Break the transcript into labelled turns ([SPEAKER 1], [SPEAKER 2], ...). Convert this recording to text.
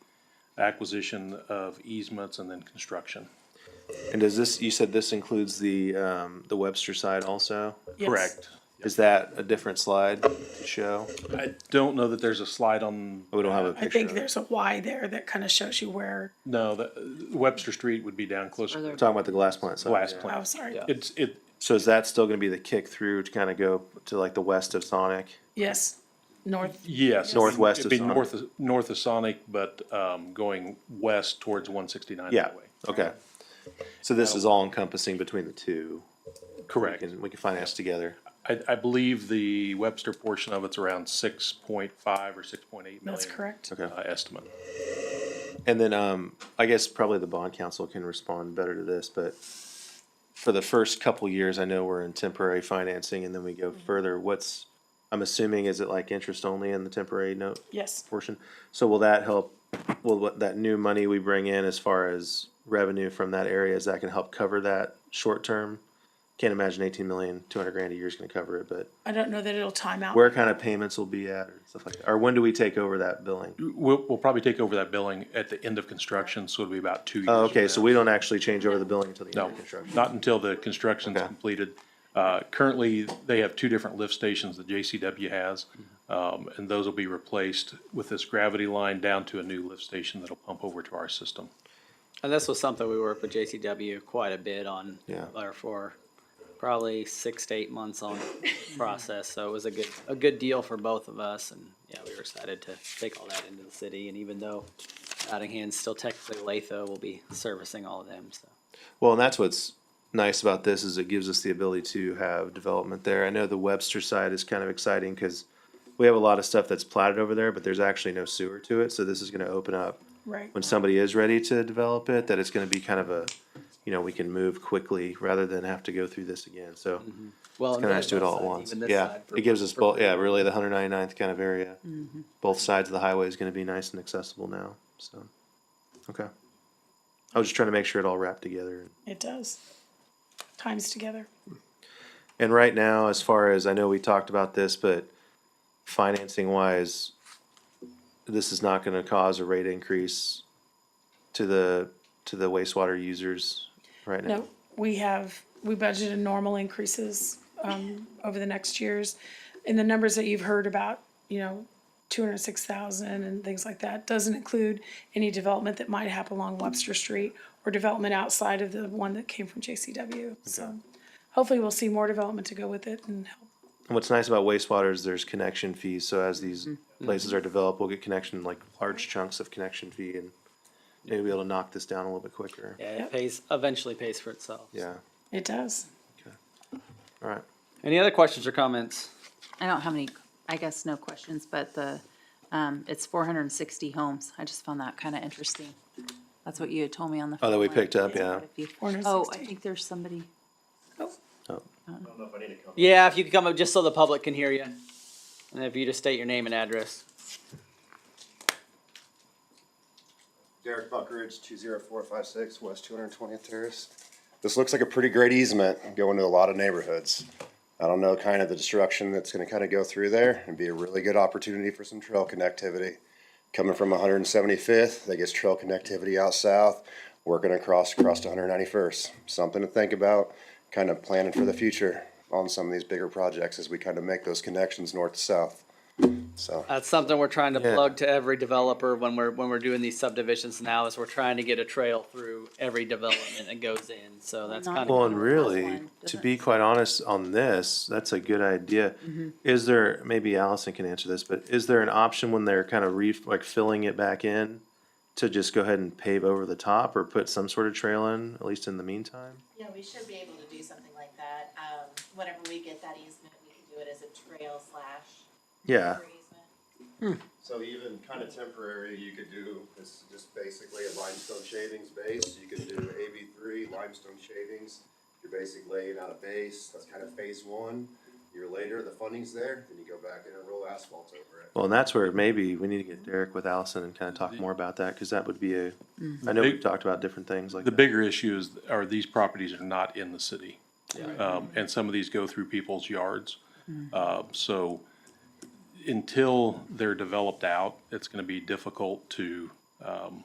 [SPEAKER 1] acquisition of easements and then construction.
[SPEAKER 2] And does this, you said this includes the, um, the Webster side also?
[SPEAKER 3] Yes.
[SPEAKER 1] Correct.
[SPEAKER 2] Is that a different slide to show? Oh,
[SPEAKER 1] I don't know that there's a slide on,
[SPEAKER 2] We don't have a
[SPEAKER 3] I
[SPEAKER 2] picture
[SPEAKER 3] think
[SPEAKER 2] of it.
[SPEAKER 3] there's a Y there that kind of shows you where,
[SPEAKER 1] no, the Webster Street would be down closer to
[SPEAKER 2] We're talking about the glass plant
[SPEAKER 1] the
[SPEAKER 2] side.
[SPEAKER 1] glass
[SPEAKER 2] yeah.
[SPEAKER 3] oh,
[SPEAKER 1] plant.
[SPEAKER 3] sorry.
[SPEAKER 1] It's, it,
[SPEAKER 2] So is that still gonna be the kick through to kinda go to like the west of Sonic?
[SPEAKER 3] Yes, north,
[SPEAKER 1] yes.
[SPEAKER 2] Northwest
[SPEAKER 1] It'd
[SPEAKER 2] of
[SPEAKER 1] be
[SPEAKER 2] Sonic.
[SPEAKER 1] north, of- north of Sonic, but, um, going west towards one sixty-nine
[SPEAKER 2] Yeah,
[SPEAKER 1] highway.
[SPEAKER 2] okay. So this is all encompassing between the two. We
[SPEAKER 1] Correct.
[SPEAKER 2] can, we can finance together.
[SPEAKER 1] I, I believe the Webster portion of it's around six point five or six point eight million.
[SPEAKER 3] that's correct.
[SPEAKER 2] Okay.
[SPEAKER 1] Uh, estimate.
[SPEAKER 2] And then, um, I guess probably the bond council can respond better to this, but for the first couple years, I know we're in temporary financing and then we go further. What's, I'm assuming, is it like interest only in the temporary note
[SPEAKER 3] Yes,
[SPEAKER 2] portion? So will that help, will what, that new money we bring in as far as revenue from that area, is that gonna help cover that short term? Can't imagine eighteen million, two hundred grand a year is gonna cover it, but
[SPEAKER 3] I don't know that it'll time out.
[SPEAKER 2] where kind of payments will be at or stuff like that? Or when do we take over that billing?
[SPEAKER 1] We'll, we'll probably take over that billing at the end of construction, so it'll be about two years.
[SPEAKER 2] Oh,
[SPEAKER 1] from
[SPEAKER 2] okay,
[SPEAKER 1] now.
[SPEAKER 2] so we don't actually change over the billing until the end
[SPEAKER 1] No,
[SPEAKER 2] of construction?
[SPEAKER 1] not until the construction's
[SPEAKER 2] Okay.
[SPEAKER 1] completed. Uh, Currently, they have two different lift stations that JCW has, um, and those will be replaced with this gravity line down to a new lift station that'll pump over to our system.
[SPEAKER 4] And this was something we worked with JCW quite a bit on,
[SPEAKER 2] Yeah.
[SPEAKER 4] or for probably six to eight months on process. So it was a good, a good deal for both of us and, yeah, we were excited to take all that into the city. And even though Nottingham's still technically Latho will be servicing all of them, so.
[SPEAKER 2] Well, and that's what's nice about this is it gives us the ability to have development there. I know the Webster side is kind of exciting because we have a lot of stuff that's platted over there, but there's actually no sewer to it. So this is going to open up
[SPEAKER 3] Right,
[SPEAKER 2] when somebody is ready to develop it, that it's going to be kind of a, you know, we can move quickly rather than have to go through this again. So
[SPEAKER 4] Well,
[SPEAKER 2] kind of nice to do it all at once. Yeah, it gives us both. Yeah, really the 199th kind of area. Both sides of the highway is going to be nice and accessible now. So, okay. I was just trying to make sure it all wrapped together.
[SPEAKER 3] it does. Times together.
[SPEAKER 2] And right now, as far as I know, we talked about this, but financing wise, this is not gonna cause a rate increase to the, to the wastewater users right now.
[SPEAKER 3] No, we have, we budgeted normal increases um, over the next years. And the numbers that you've heard about, you know, two hundred six thousand and things like that, doesn't include any development that might happen along Webster Street or development outside of the one that came from JCW. So hopefully we'll see more development to go with it and help.
[SPEAKER 2] And what's nice about wastewater is there's connection fees, so as these places are developed, we'll get connection, like large chunks of connection fee and maybe be able to knock this down a little bit quicker.
[SPEAKER 4] Yeah,
[SPEAKER 3] Yep.
[SPEAKER 4] it pays, eventually pays for itself.
[SPEAKER 2] Yeah,
[SPEAKER 3] It does.
[SPEAKER 2] all right.
[SPEAKER 4] Any other questions or comments?
[SPEAKER 5] I don't have any, I guess, no questions, but the, um, it's four hundred and sixty homes. I just found that kind of interesting. That's what you had told me on the.
[SPEAKER 2] Oh, that we
[SPEAKER 5] phone line.
[SPEAKER 2] picked up,
[SPEAKER 5] It's
[SPEAKER 2] yeah.
[SPEAKER 5] quite a few.
[SPEAKER 3] 460.
[SPEAKER 5] Oh, I think there's somebody.
[SPEAKER 2] Oh,
[SPEAKER 4] Yeah, if you could come up just so the public can hear you. And if you just state your name and address.
[SPEAKER 6] Derek Buckridge, two zero four five six, West two hundred twentieth Terrace. This looks like a pretty great easement going to a lot of neighborhoods. I don't know kind of the destruction that's gonna kind of go through there and be a really good opportunity for some trail connectivity. Coming from one hundred and seventy-fifth, that gets trail connectivity out south, working across, across to one hundred ninety-first. Something to think about, kind of planning for the future on some of these bigger projects as we kind of make those connections north to south. So.
[SPEAKER 4] That's something we're trying to
[SPEAKER 2] Yeah.
[SPEAKER 4] plug to every developer when we're, when we're doing these subdivisions now is we're trying to get a trail through every development that goes in. So that's
[SPEAKER 5] Not
[SPEAKER 4] kind
[SPEAKER 2] Well,
[SPEAKER 4] of,
[SPEAKER 2] and
[SPEAKER 5] Or
[SPEAKER 2] really,
[SPEAKER 5] outline,
[SPEAKER 2] to
[SPEAKER 5] doesn't
[SPEAKER 2] be quite honest on this, that's a good idea. Is there, maybe Allison can answer this, but is there an option when they're kind of re, like filling it back in? To just go ahead and pave over the top or put some sort of trail in, at least in the meantime?
[SPEAKER 7] Yeah, we should be able to do something like that. Um, whenever we get that easement, we can do it as a trail slash
[SPEAKER 2] Yeah,
[SPEAKER 7] for easement.
[SPEAKER 6] So even kind of temporary, you could do, this is just basically a limestone shavings base, you could do AB three limestone shavings. You're basically laying out a base, that's kind of phase one, year later, the funding's there, then you go back in and roll asphalt over it.
[SPEAKER 2] well, and that's where maybe we need to get Derek with Allison and kind of talk more about that, cause that would be a, I know we've
[SPEAKER 1] Big-
[SPEAKER 2] taled about different things like
[SPEAKER 1] The
[SPEAKER 2] that.
[SPEAKER 1] bigger issue is, are these properties are not in the city. Um, and some of these go through people's yards. Uh, so until they're developed out, it's gonna be difficult to, um,